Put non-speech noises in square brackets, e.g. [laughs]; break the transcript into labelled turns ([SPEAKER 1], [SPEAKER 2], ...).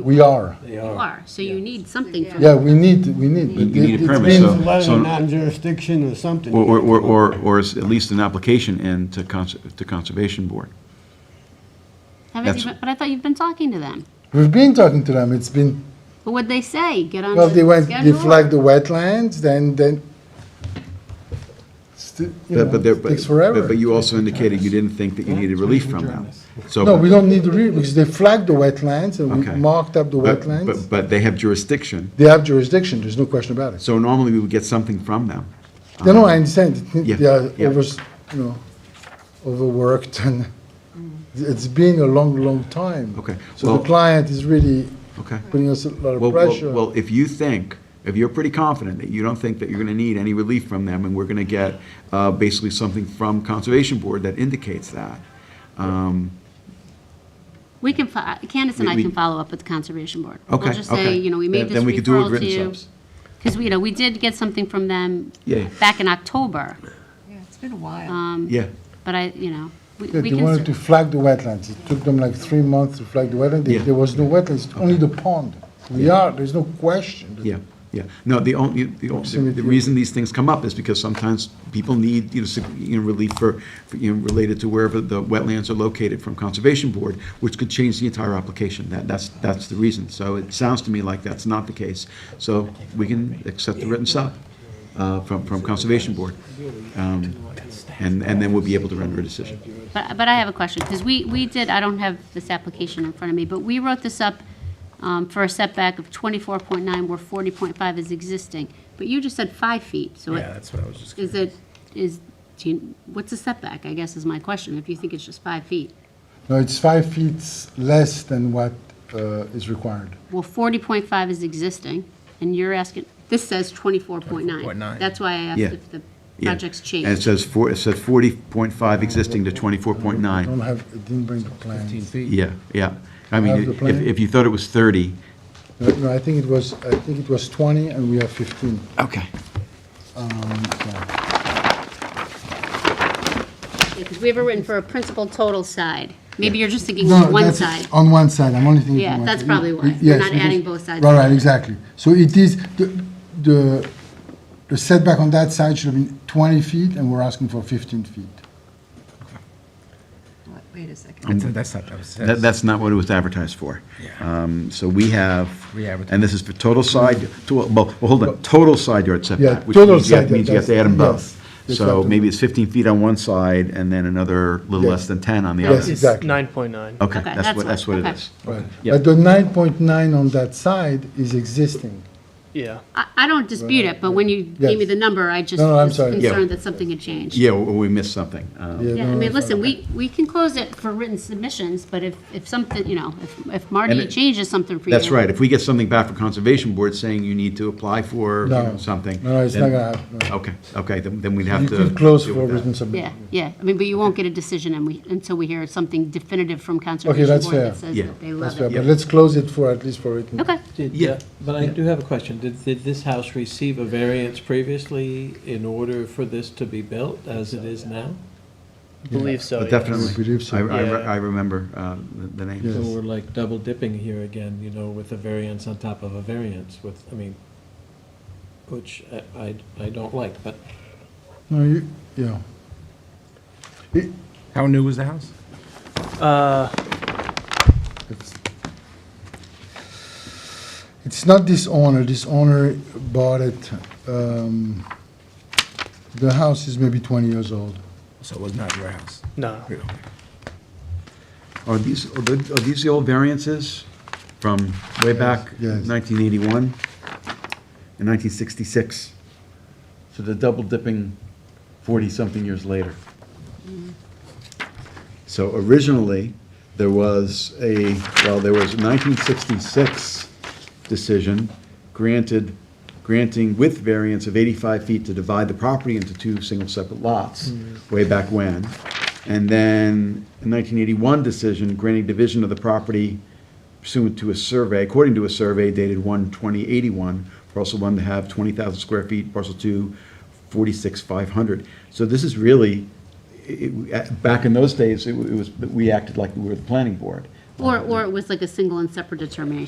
[SPEAKER 1] We are.
[SPEAKER 2] They
[SPEAKER 3] Oh,
[SPEAKER 4] You
[SPEAKER 2] are.
[SPEAKER 4] are, so you need something from.
[SPEAKER 1] Yeah, we need, we need. but
[SPEAKER 3] You need a
[SPEAKER 1] it- it
[SPEAKER 3] permit,
[SPEAKER 1] means-
[SPEAKER 3] so-
[SPEAKER 2] Letter of non-jurisdiction or something.
[SPEAKER 3] Or, or- or, or, or is at least an application in to cons, to Conservation Board.
[SPEAKER 4] Haven't
[SPEAKER 3] That's-
[SPEAKER 4] you been- But I thought you've been talking to them.
[SPEAKER 1] We've been talking to them. It's been,
[SPEAKER 4] But what'd they say? Get on
[SPEAKER 1] well,
[SPEAKER 4] the
[SPEAKER 1] they went, they
[SPEAKER 4] schedule?
[SPEAKER 1] flagged the wetlands, then, then. sti- you know,
[SPEAKER 3] But but there- but-
[SPEAKER 1] Takes
[SPEAKER 3] but-
[SPEAKER 1] forever.
[SPEAKER 3] But you also indicated you didn't think that you needed relief from them. So.
[SPEAKER 1] No, we don't need to read, because they flagged the wetlands and we
[SPEAKER 3] Okay.
[SPEAKER 1] marked up the
[SPEAKER 3] but- but-
[SPEAKER 1] wetlands.
[SPEAKER 3] But they have jurisdiction,
[SPEAKER 1] They have jurisdiction, there's no question about it.
[SPEAKER 3] so normally we would get something from them.
[SPEAKER 1] No, no, I understand.
[SPEAKER 3] Uh-huh. yeah,
[SPEAKER 1] They are
[SPEAKER 3] yeah.
[SPEAKER 1] over, you know, overworked and [laughs] it's been a long, long time.
[SPEAKER 3] Okay,
[SPEAKER 1] So the
[SPEAKER 3] well-
[SPEAKER 1] client is really
[SPEAKER 3] Okay.
[SPEAKER 1] putting us a lot
[SPEAKER 3] Well,
[SPEAKER 1] of
[SPEAKER 3] well,
[SPEAKER 1] pressure.
[SPEAKER 3] well, if you think, if you're pretty confident that you don't think that you're gonna need any relief from them, and we're gonna get, uh, basically something from Conservation Board that indicates that, um,
[SPEAKER 4] We can, fo- Candace and
[SPEAKER 3] We-
[SPEAKER 4] I
[SPEAKER 3] we-
[SPEAKER 4] can follow up with the Conservation Board.
[SPEAKER 3] Okay,
[SPEAKER 4] We'll just
[SPEAKER 3] okay.
[SPEAKER 4] say, you know, we
[SPEAKER 3] Then-
[SPEAKER 4] made this
[SPEAKER 3] then we could do it
[SPEAKER 4] referral to
[SPEAKER 3] written
[SPEAKER 4] you.
[SPEAKER 3] subs.
[SPEAKER 4] Because, you know, we did get something from them
[SPEAKER 3] Yeah.
[SPEAKER 4] back in October,
[SPEAKER 5] Yeah, it's been a while.
[SPEAKER 4] um,
[SPEAKER 3] yeah.
[SPEAKER 4] but I, you know, we
[SPEAKER 1] Yeah,
[SPEAKER 4] we
[SPEAKER 1] They
[SPEAKER 4] can,
[SPEAKER 1] wanted
[SPEAKER 4] cer-
[SPEAKER 1] to flag the wetlands. It took them like three months to flag the wetlands. There-
[SPEAKER 3] Yeah.
[SPEAKER 1] There was no wetlands, only the pond. We are, there's no question.
[SPEAKER 3] Yeah, yeah. No, the only, the only, the reason these things come up is because sometimes people need, you know, sig- you know, relief for, for, you know, related to wherever the wetlands are located from Conservation Board, which could change the entire application. That, that's, that's the reason. So it sounds to me like that's not the case. So we can accept the written sub, uh, from, from Conservation Board. Um, And, and then we'll be able to render a decision.
[SPEAKER 4] but, but I have a question, because we, we did, I don't have this application in front of me, but we wrote this up um, for a setback of 24.9 where 40.5 is existing, but you just said five feet, so it-
[SPEAKER 2] Yeah, that's what I was just.
[SPEAKER 4] Is it, is, do you, what's a setback, I guess is my question, if you think it's just five feet?
[SPEAKER 1] No, it's five feet less than what uh, is required.
[SPEAKER 4] Well, forty point five is existing, and you're asking, this says twenty-four point nine.
[SPEAKER 6] 24.9.
[SPEAKER 4] That's why I asked
[SPEAKER 3] Yeah.
[SPEAKER 4] if the
[SPEAKER 3] Yeah.
[SPEAKER 4] project's
[SPEAKER 3] And it
[SPEAKER 4] changed.
[SPEAKER 3] says four, it says forty point five existing to twenty-four point
[SPEAKER 1] I
[SPEAKER 3] nine.
[SPEAKER 1] don't have, I didn't bring the plans.
[SPEAKER 3] Yeah, yeah. I
[SPEAKER 1] Have
[SPEAKER 3] mean,
[SPEAKER 1] the
[SPEAKER 3] if,
[SPEAKER 1] plan?
[SPEAKER 3] if you thought it was 30.
[SPEAKER 1] No, No, I think it was, I think it was 20 and we have 15.
[SPEAKER 3] Okay.
[SPEAKER 1] Um, so-
[SPEAKER 4] Because we have it written for a principal total side. Maybe you're just thinking
[SPEAKER 1] No,
[SPEAKER 4] of one
[SPEAKER 1] that's-
[SPEAKER 4] side.
[SPEAKER 1] On one side, I'm only thinking.
[SPEAKER 4] Yeah,
[SPEAKER 1] one
[SPEAKER 4] that's
[SPEAKER 1] side.
[SPEAKER 4] probably why.
[SPEAKER 1] Yes,
[SPEAKER 4] We're not
[SPEAKER 1] because-
[SPEAKER 4] adding both sides
[SPEAKER 1] Right,
[SPEAKER 4] together.
[SPEAKER 1] right, exactly. So it is, the- the the setback on that side should have been 20 feet, and we're asking for 15 feet.
[SPEAKER 5] Wait a second.
[SPEAKER 6] That's, that's not, that was.
[SPEAKER 3] That, that's not what it was advertised for.
[SPEAKER 6] Yeah.
[SPEAKER 3] Um, So we have,
[SPEAKER 6] Re-advertise.
[SPEAKER 3] and this is for total side, to- well, well, hold on, total side yard setback. which
[SPEAKER 1] total
[SPEAKER 3] means you have-
[SPEAKER 1] side
[SPEAKER 3] Means you have to
[SPEAKER 1] yard,
[SPEAKER 3] add them
[SPEAKER 1] yes.
[SPEAKER 3] both.
[SPEAKER 1] Yes,
[SPEAKER 3] So
[SPEAKER 1] after-
[SPEAKER 3] maybe it's 15 feet on one side and then another little
[SPEAKER 1] Yes.
[SPEAKER 3] less than 10 on the
[SPEAKER 1] Yes,
[SPEAKER 3] other.
[SPEAKER 1] exactly.
[SPEAKER 7] Nine point nine.
[SPEAKER 3] Okay,
[SPEAKER 4] Okay,
[SPEAKER 3] that's
[SPEAKER 4] that's
[SPEAKER 3] what,
[SPEAKER 4] what-
[SPEAKER 3] that's what it
[SPEAKER 4] okay.
[SPEAKER 3] is.
[SPEAKER 1] Right.
[SPEAKER 3] Yeah.
[SPEAKER 1] But the 9.9 on that side is existing.
[SPEAKER 7] Yeah.
[SPEAKER 4] I, I don't dispute it, but when you gave me
[SPEAKER 1] Yes.
[SPEAKER 4] the number, I just
[SPEAKER 1] No, no, I'm
[SPEAKER 4] was
[SPEAKER 1] sorry. Yeah.
[SPEAKER 4] concerned that something had changed.
[SPEAKER 3] Yeah, or we missed something. Um,
[SPEAKER 1] Yeah,
[SPEAKER 4] Yeah, I
[SPEAKER 1] no,
[SPEAKER 4] mean,
[SPEAKER 1] that's
[SPEAKER 4] listen, we, we can close it for written submissions, but if, if something, you know, if, if
[SPEAKER 3] And
[SPEAKER 4] Marty
[SPEAKER 3] it-
[SPEAKER 4] changes something for you.
[SPEAKER 3] That's right. If we get something back from Conservation Board saying you need to apply for you know,
[SPEAKER 1] No.
[SPEAKER 3] something.
[SPEAKER 1] No, it's
[SPEAKER 3] then-
[SPEAKER 1] not gonna happen, no.
[SPEAKER 3] Okay, okay, then then we'd
[SPEAKER 1] You
[SPEAKER 3] have to.
[SPEAKER 1] can close
[SPEAKER 3] deal
[SPEAKER 1] for
[SPEAKER 3] with that.
[SPEAKER 1] written submission.
[SPEAKER 4] Yeah, yeah, I mean, but you won't get a decision and we, until we hear something definitive from Conservation
[SPEAKER 1] that's
[SPEAKER 4] Board that
[SPEAKER 1] fair.
[SPEAKER 4] says
[SPEAKER 3] Yeah.
[SPEAKER 4] that they
[SPEAKER 1] That's
[SPEAKER 4] love
[SPEAKER 1] fair,
[SPEAKER 4] it.
[SPEAKER 1] But let's close it for, at least for written.
[SPEAKER 4] Okay,
[SPEAKER 2] Did,
[SPEAKER 3] Yeah.
[SPEAKER 2] uh, But I do have a question. Did, did this house receive a variance previously in order for this to be built as it is now?
[SPEAKER 7] Believe so.
[SPEAKER 3] But
[SPEAKER 7] yes.
[SPEAKER 3] Definitely.
[SPEAKER 1] I believe so.
[SPEAKER 3] I, I re-
[SPEAKER 7] Yeah.
[SPEAKER 3] I remember uh, the- the name.
[SPEAKER 2] So
[SPEAKER 1] Yes.
[SPEAKER 2] we're like double dipping here again, you know, with a variance on top of a variance with, I mean, which I- I, I don't like, but
[SPEAKER 1] No, you, yeah. It-
[SPEAKER 6] How new was the house?
[SPEAKER 7] Uh,
[SPEAKER 1] It's- It's not this owner, this owner bought it, um, the house is maybe 20 years old.
[SPEAKER 6] So it was not your house?
[SPEAKER 7] no.
[SPEAKER 3] Are these, are the- are these the old variances from way back,
[SPEAKER 1] Yes, yes.
[SPEAKER 3] 1981 and 1966? So they're double dipping 40-something years later. So originally, there was a, well, there was a 1966 decision granted, granting with variance of 85 feet to divide the property into two single separate lots, way back when. And then a 1981 decision granting division of the property pursuant to a survey, according to a survey dated 1/2081, parcel one to have 20,000 square feet, parcel two, 46,500. So this is really, it- it- uh, back in those days, it wa- it was, we acted like we were the planning board.
[SPEAKER 4] Or, or it was like a single and separate determination.